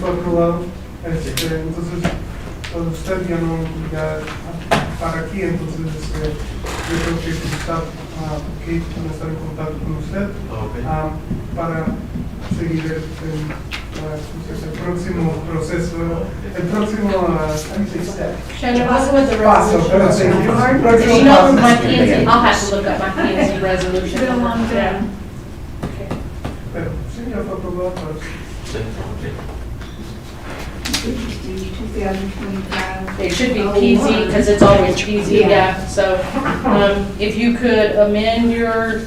por outro lado, este, que é, entonces todo usted ya no ya para aquí, entonces eh, yo creo que está ah, aquí para estar en contacto con usted Ok. ah, para seguir el, el, ah, ¿cómo se dice? el próximo proceso, el próximo ah, ¿cómo se dice? Shannon, what was the paso, resolution? pero sí, el Do you próximo know paso. my PNC, I'll have to look up my PNC resolution. Been a long time. Yeah. Pero sí, ya fue aprobado para Sim, ok. It should be PZ, because it's always PZ, Yeah. yeah, so, um, if you could amend your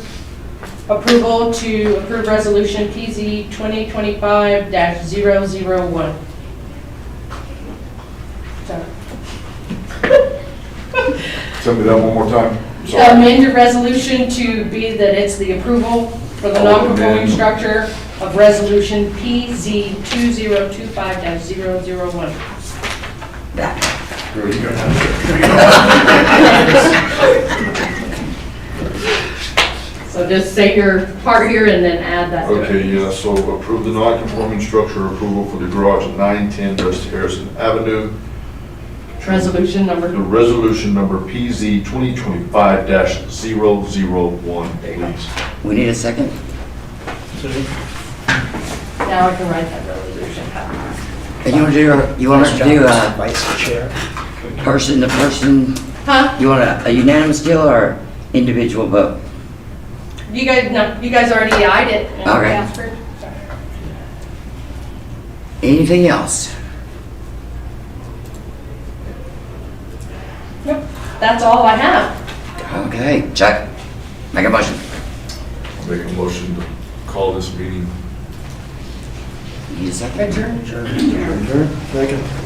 approval to approve resolution PZ 2025-001. So, Send me that one more time. Sorry. Amend your resolution to be that it's the approval for the Oh, amend. non-conforming structure of resolution PZ 2025-001. Girl, you gonna have So just say your part here and then add to- that to it. Okay, yeah, so approve the non-conforming structure approval for the garage at 910 West Harrison Avenue. Resolution number. The resolution number PZ 2025-001, please. We need a second? Now I can write that resolution. And you want to do, uh, you want us to do a person to person, Huh? you want a a unanimous deal or individual vote? You guys, no, you guys already eyed it. Okay. Anything else? Yep, That's all I have. Okay, Chuck, make a motion. I'll Make a motion to call this meeting. Need a second? adjourned. Second.